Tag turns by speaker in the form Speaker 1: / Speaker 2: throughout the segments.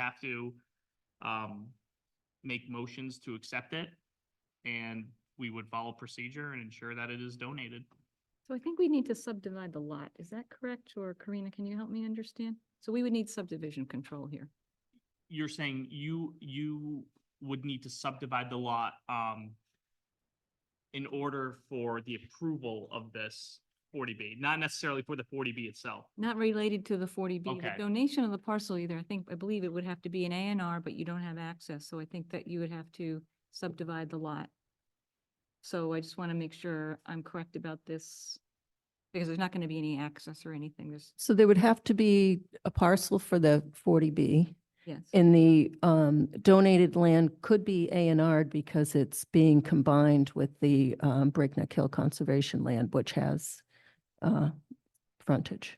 Speaker 1: have to um, make motions to accept it. And we would follow procedure and ensure that it is donated.
Speaker 2: So I think we need to subdivide the lot. Is that correct? Or Karina, can you help me understand? So we would need subdivision control here.
Speaker 1: You're saying you, you would need to subdivide the lot, um, in order for the approval of this forty B, not necessarily for the forty B itself.
Speaker 2: Not related to the forty B.
Speaker 1: Okay.
Speaker 2: The donation of the parcel either, I think, I believe it would have to be an A and R, but you don't have access. So I think that you would have to subdivide the lot. So I just want to make sure I'm correct about this because there's not going to be any access or anything. There's,
Speaker 3: So there would have to be a parcel for the 40B,
Speaker 2: yes.
Speaker 3: and the um, donated land could be A and R'd because it's being combined with the um, Breakneck Hill Conservation Land, which has uh, frontage.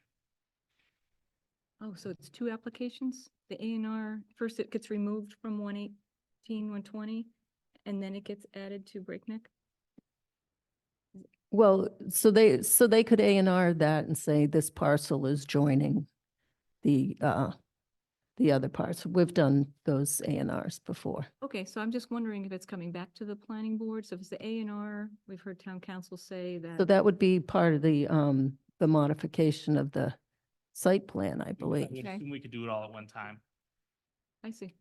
Speaker 2: Oh, so it's two applications? The A and R, first it gets removed from one eighteen, one twenty, and then it gets added to Breakneck?
Speaker 3: Well, so they, so they could A and R that and say this parcel is joining the, uh, the other parts. We've done those A and Rs before.
Speaker 2: Okay, so I'm just wondering if it's coming back to the planning board, so if it's the A and R, we've heard town council say
Speaker 3: So
Speaker 2: that.
Speaker 3: that would be part of the, um, the modification of the site plan, I believe.
Speaker 1: I would
Speaker 2: Okay.
Speaker 1: assume We could do it all at one time.
Speaker 2: I see,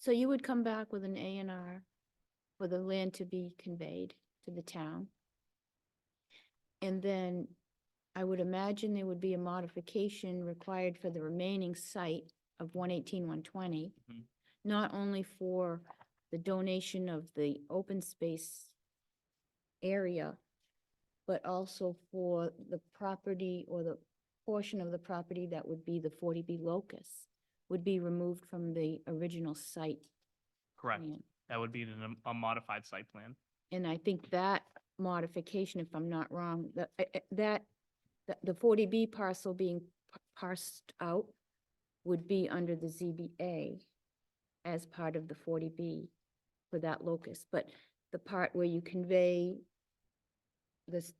Speaker 4: So you would come back with an A and R for the land to be conveyed to the town? And then I would imagine there would be a modification required for the remaining site of one eighteen, one twenty.
Speaker 1: Mhm.
Speaker 4: Not only for the donation of the open space area, but also for the property or the portion of the property that would be the forty B locus would be removed from the original site
Speaker 1: Correct.
Speaker 4: plan.
Speaker 1: That would be an- a modified site plan.
Speaker 4: And I think that modification, if I'm not wrong, that, eh, eh, that, the- the forty B parcel being p- parsed out would be under the ZBA as part of the forty B for that locus, but the part where you convey this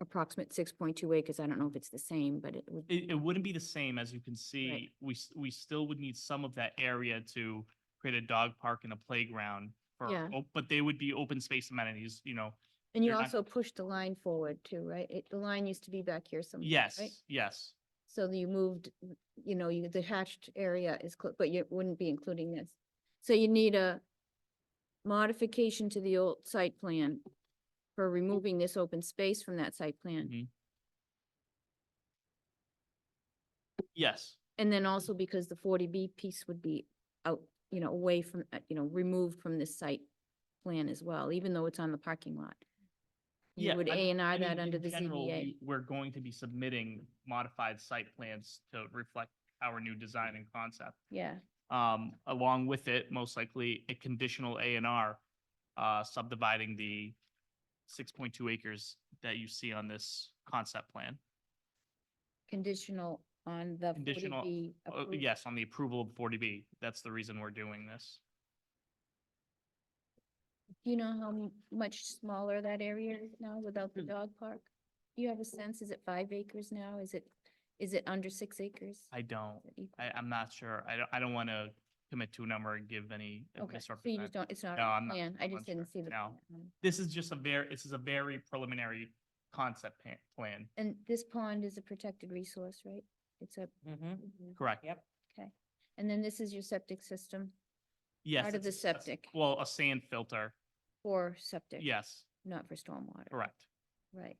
Speaker 4: approximate six point two acres, I don't know if it's the same, but it would.
Speaker 1: It, it wouldn't be the same, as you can see, we, s- we still would need some of that area to create a dog park and a playground. for
Speaker 4: Yeah.
Speaker 1: op- But they would be open space amenities, you know,
Speaker 4: And you
Speaker 1: you're not-
Speaker 4: also push the line forward too, right? It, the line used to be back here somewhere,
Speaker 1: yes,
Speaker 4: right?
Speaker 1: yes,
Speaker 4: So you moved, you know, you, the hatched area is, clo- but you wouldn't be including this. So you need a modification to the old site plan for removing this open space from that site
Speaker 1: Mhm.
Speaker 4: plan.
Speaker 1: yes,
Speaker 4: And then also because the forty B piece would be out, you know, away from, uh, you know, removed from this site plan as well, even though it's on the parking lot.
Speaker 1: Yeah,
Speaker 4: You would
Speaker 1: I-
Speaker 4: A and
Speaker 1: I
Speaker 4: R
Speaker 1: mean,
Speaker 4: that
Speaker 1: in
Speaker 4: under the
Speaker 1: general,
Speaker 4: ZBA.
Speaker 1: we- We're going to be submitting modified site plans to reflect our new design and concept.
Speaker 4: Yeah,
Speaker 1: Um, along with it, most likely a conditional A and R, uh, subdividing the six point two acres that you see on this concept plan.
Speaker 4: conditional on the forty
Speaker 1: Conditional-
Speaker 4: B.
Speaker 1: Uh, Yes, on the approval of forty B. That's the reason we're doing this.
Speaker 4: Do you know how m- much smaller that area is now without the
Speaker 1: Hmm.
Speaker 4: dog park? Do you have a sense? Is it five acres now? Is it, is it under six acres?
Speaker 1: I don't,
Speaker 4: Is it equal?
Speaker 1: I, I'm not sure. I don't, I don't want to commit to a number and give any uh,
Speaker 4: Okay, so you
Speaker 1: misrepresent.
Speaker 4: just don't, it's not
Speaker 1: No, I'm
Speaker 4: on the
Speaker 1: not-
Speaker 4: plan. I
Speaker 1: I'm
Speaker 4: just
Speaker 1: unsure.
Speaker 4: didn't see the.
Speaker 1: No.
Speaker 4: plan.
Speaker 1: This is just a very, this is a very preliminary concept pa- plan.
Speaker 4: And this pond is a protected resource, right? It's a,
Speaker 1: Correct. Yep.
Speaker 4: and then this is your septic system
Speaker 1: Yes.
Speaker 4: Part of
Speaker 1: it's
Speaker 4: the
Speaker 1: a- a s-
Speaker 4: septic.
Speaker 1: Well, a sand filter.
Speaker 4: for septic?
Speaker 1: Yes,
Speaker 4: Not for stormwater?
Speaker 1: correct.
Speaker 4: Right.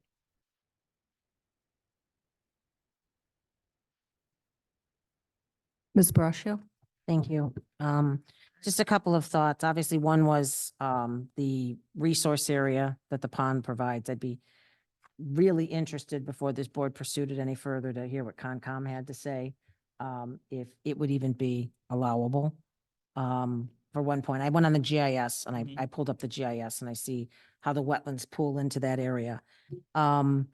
Speaker 3: Ms. Brascio?
Speaker 5: Thank you. Um, just a couple of thoughts. Obviously, one was, um, the resource area that the pond provides. I'd be really interested before this board pursued it any further to hear what Concom had to say, um, if it would even be allowable. Um, for one point, I went on the GIS and I,
Speaker 1: Mhm.
Speaker 5: I pulled up the GIS and I see how the wetlands pool into that area. Um,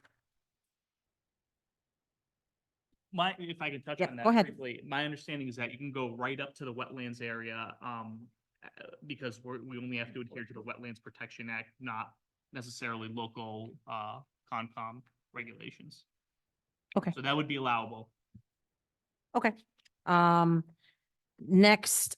Speaker 1: My, if I can touch
Speaker 5: Yep,
Speaker 1: on
Speaker 5: go
Speaker 1: that
Speaker 5: ahead.
Speaker 1: briefly, my understanding is that you can go right up to the wetlands area, um, uh, because we're, we only have to adhere to the Wetlands Protection Act, not necessarily local, uh, Concom regulations.
Speaker 5: Okay.
Speaker 1: So that would be allowable.
Speaker 5: Okay. Um, Next,